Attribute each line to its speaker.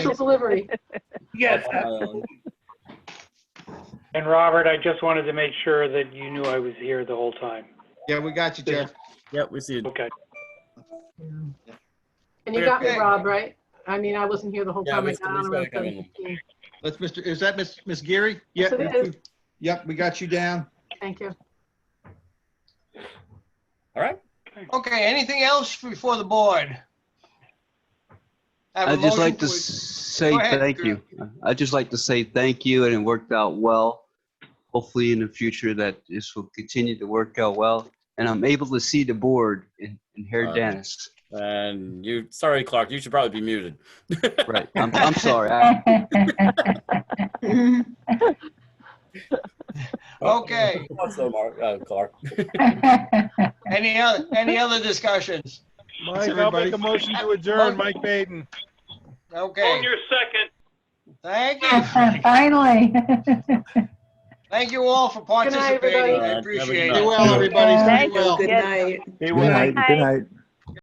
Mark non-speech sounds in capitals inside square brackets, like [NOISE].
Speaker 1: Triple liberty.
Speaker 2: Yes,
Speaker 3: on my own.
Speaker 4: Uh, And Robert, I just wanted to make sure that you knew I was here the whole time.
Speaker 5: Yeah, we got you, Jeff.
Speaker 3: [LAUGHS] Yep, we see it.
Speaker 4: Okay.
Speaker 1: And you got me,
Speaker 5: Okay.
Speaker 1: Rob, right? I mean, I wasn't here the whole
Speaker 3: Yeah,
Speaker 1: time. I
Speaker 3: Mr.
Speaker 1: got on
Speaker 3: Lee's
Speaker 1: around
Speaker 3: gotta come in.
Speaker 1: 7:15.
Speaker 5: Let's, Mr., is that Miss, Miss Geary?
Speaker 1: Yes,
Speaker 5: Yep.
Speaker 1: it is.
Speaker 5: Yep, we got you down.
Speaker 1: Thank you.
Speaker 3: All right.
Speaker 6: Okay, anything else before the board? Have a
Speaker 7: I'd just
Speaker 6: motion
Speaker 7: like to
Speaker 6: for-
Speaker 7: say
Speaker 6: Go ahead,
Speaker 7: thank
Speaker 6: Drew.
Speaker 7: you. I'd just like to say thank you, and it worked out well. Hopefully, in the future, that this will continue to work out well, and I'm able to see the board and, and hear
Speaker 3: Uh,
Speaker 7: Dennis.
Speaker 3: And you, sorry, Clark, you should probably be muted.
Speaker 7: Right. I'm, I'm sorry. I,
Speaker 3: [LAUGHS]
Speaker 6: Okay,
Speaker 3: Also, Mark, uh, Clark.
Speaker 6: any other, any other discussions?
Speaker 2: Mike, I'll make a motion to adjourn, Mike Baden.
Speaker 6: Okay,
Speaker 4: second.
Speaker 6: thank you,
Speaker 8: Finally.
Speaker 6: thank you all for
Speaker 1: night, everybody.
Speaker 3: All right, have a good
Speaker 6: participating, I appreciate
Speaker 3: night.
Speaker 5: Be
Speaker 6: it.
Speaker 5: well, everybody. Stay well.
Speaker 9: Good night.
Speaker 2: Be
Speaker 8: well.
Speaker 2: well.
Speaker 8: night. Good
Speaker 9: night.